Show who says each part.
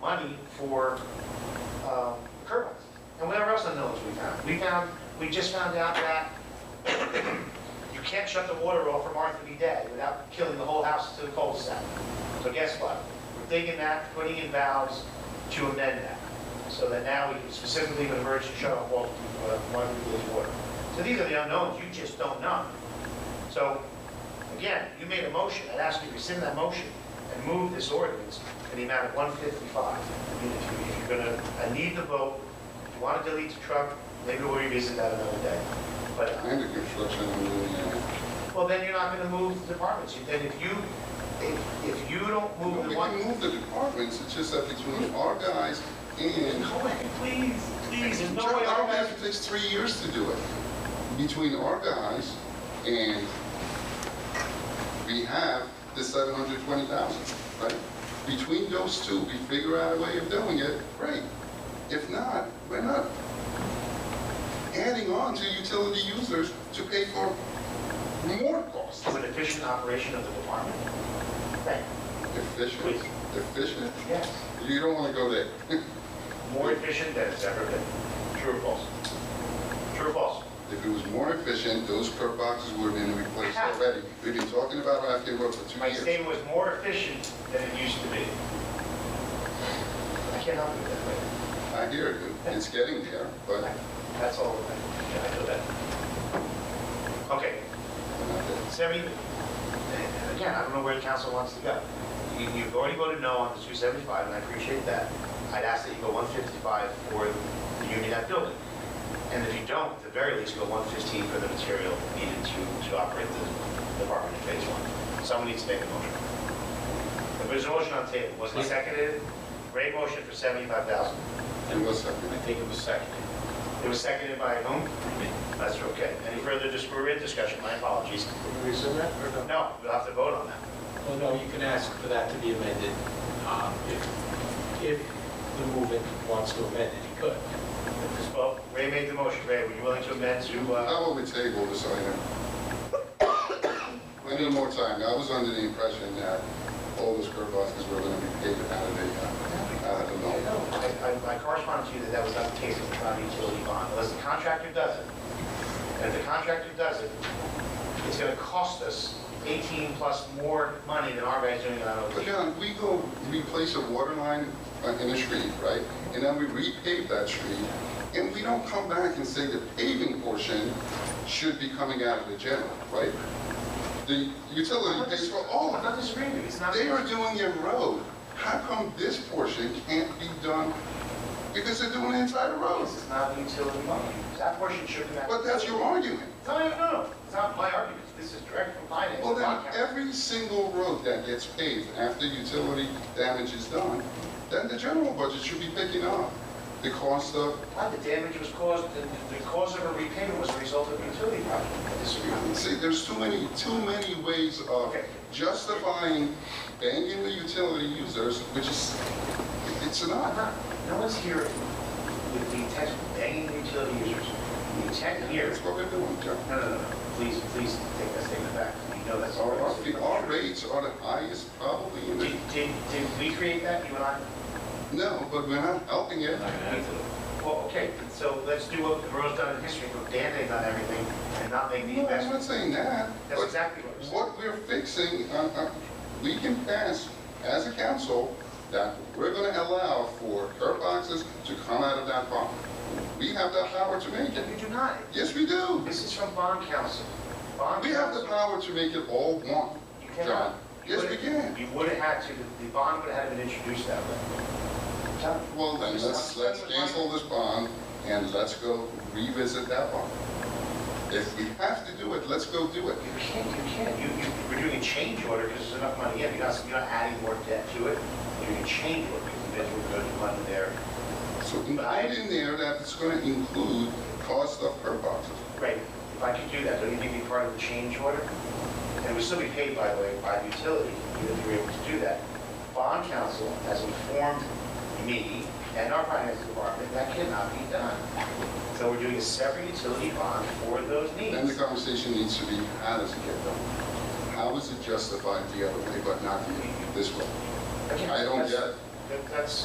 Speaker 1: money for um, curb cuts. And whatever else unknowns we found. We found, we just found out that you can't shut the water off from Arthur B. Day without killing the whole house to the cul-de-sac. So guess what? We're digging that, putting in valves to amend that. So that now we can specifically with emergency shut off walls to uh, one of water. So these are the unknowns, you just don't know. So Again, you made a motion, I'd ask you to rescind that motion and move this ordinance in the amount of 155. I mean, if you- if you're gonna, I need the vote, if you want to delete the truck, maybe we'll revisit that another day. But, uh,
Speaker 2: And the construction, uh,
Speaker 1: well, then you're not gonna move the departments, You- then if you, if, if you don't
Speaker 2: no,
Speaker 1: move
Speaker 2: we
Speaker 1: the
Speaker 2: can
Speaker 1: one.
Speaker 2: move the departments, it's just that between our guys and.
Speaker 1: No way, please, please, there's no
Speaker 2: Joe,
Speaker 1: way
Speaker 2: I
Speaker 1: our
Speaker 2: don't
Speaker 1: guys.
Speaker 2: think it takes three years to do it. Between our guys and we have the seven hundred twenty thousand, right? Between those two, we figure out a way of doing it, great. If not, we're not adding on to utility users to pay for more costs.
Speaker 1: To an efficient operation of the department. Thank you,
Speaker 2: Efficient, efficient,
Speaker 1: yes,
Speaker 2: you don't wanna go there.
Speaker 1: more efficient than it's ever been. True or false? True or false?
Speaker 2: If it was more efficient, those curb boxes would have been replaced already. We've been talking about Rafkin Road for two
Speaker 1: My
Speaker 2: years.
Speaker 1: statement was more efficient than it used to be. I can't help you with that, way.
Speaker 2: I hear you, it's getting there, but
Speaker 1: that's all, I I know that. Okay, seventy, again, I don't know where the council wants to go. You- You've already voted no on the two seventy-five, and I appreciate that. I'd ask that you go one fifty-five for the Union Act building. And if you don't, at the very least, go one fifteen for the material needed to, to operate the department in phase one. Someone needs to make a motion. If There's a motion on the table, wasn't it seconded? Great motion for seventy-five thousand.
Speaker 2: it was something.
Speaker 3: I think it was seconded.
Speaker 1: It was seconded by whom? That's okay. Any further dis- we're in discussion? My apologies. No, we'll have to vote on that.
Speaker 3: Well, no, you can ask for that to be amended, um, if, if the movement wants to amend it, he could.
Speaker 1: Well, Ray made the motion. Ray, were you willing to amend to, uh,
Speaker 2: How will we table this item? We need more time. I was under the impression that all those curb boxes were gonna be paid out of the, uh, out of the
Speaker 1: I,
Speaker 2: loan.
Speaker 1: I- I corresponded to you that that was not the case with the county utility bond, unless the contractor does it. And if the contractor does it, it's gonna cost us 18 plus more money than our guys doing it on
Speaker 2: But
Speaker 1: OT.
Speaker 2: John, we go replace a water line uh, in a street, right? And then we repave that street, and we don't come back and say the paving portion should be coming out of the general, right? The utility pays for all
Speaker 1: I'm
Speaker 2: of it.
Speaker 1: not disagreeing with you. It's not.
Speaker 2: They are doing a road. How come this portion can't be done? Because they're doing the entire road.
Speaker 1: It's not the utility money. That portion should be.
Speaker 2: But that's your argument.
Speaker 1: No, no, no, no. it's not my argument, this is direct from finance.
Speaker 2: Well, then,
Speaker 1: Not council.
Speaker 2: every single road that gets paved after utility damage is done, then the general budget should be picking up the cost of,
Speaker 1: Not the damage was caused, the, the cause of a repayment was a result of a utility project. I disagree.
Speaker 2: see, there's too many, too many ways of
Speaker 1: Okay.
Speaker 2: justifying banging the utility users, which is, it's
Speaker 1: I'm
Speaker 2: not.
Speaker 1: not, no one's here with the intent of banging the utility users. The intent here,
Speaker 2: That's what we're doing, John.
Speaker 1: no, no, no, no. please, please take that statement back, we know that's.
Speaker 2: Our, our- our rates are the highest probably in
Speaker 1: Did,
Speaker 2: the
Speaker 1: did, did we create that, you and I?
Speaker 2: No, but we're not helping it.
Speaker 1: Well, okay, so let's do what Monroe's done in history, put Band-Aid on everything and not make the
Speaker 2: No, I'm
Speaker 1: investment.
Speaker 2: not saying that.
Speaker 1: That's
Speaker 2: But
Speaker 1: exactly what I'm saying.
Speaker 2: what we're fixing, uh, uh, we can pass as a council that we're going to allow for curb boxes to come out of that bond. We have that power to make it.
Speaker 1: You do not,
Speaker 2: Yes, we do.
Speaker 1: this is from bond council. Bond
Speaker 2: We have the
Speaker 1: council-
Speaker 2: power to make it all one,
Speaker 1: You
Speaker 2: John.
Speaker 1: cannot.
Speaker 2: Yes, we can.
Speaker 1: You would have had to, the bond would have been introduced that way. John,
Speaker 2: Well, then, let's, let's cancel this bond and let's go revisit that bond. If we have to do it, let's go do it.
Speaker 1: You can't, you can't, you, you, we're doing a change order because there's enough money in, you're not, you're not adding more debt to it. You're doing a change order because there's good money there.
Speaker 2: So include in there that it's going to include cost of curb boxes.
Speaker 1: Right, if I could do that, don't you think it'd be part of the change order? And it would still be paid, by the way, by the utility, if you were able to do that. Bond council has informed me and our finance department that cannot be done. So we're doing a separate utility bond for those needs.
Speaker 2: Then the conversation needs to be, how does it get done? How is it justified the other way, but not the- this way?
Speaker 1: Again,
Speaker 2: I don't
Speaker 1: that's-
Speaker 2: get it.
Speaker 1: that- That's,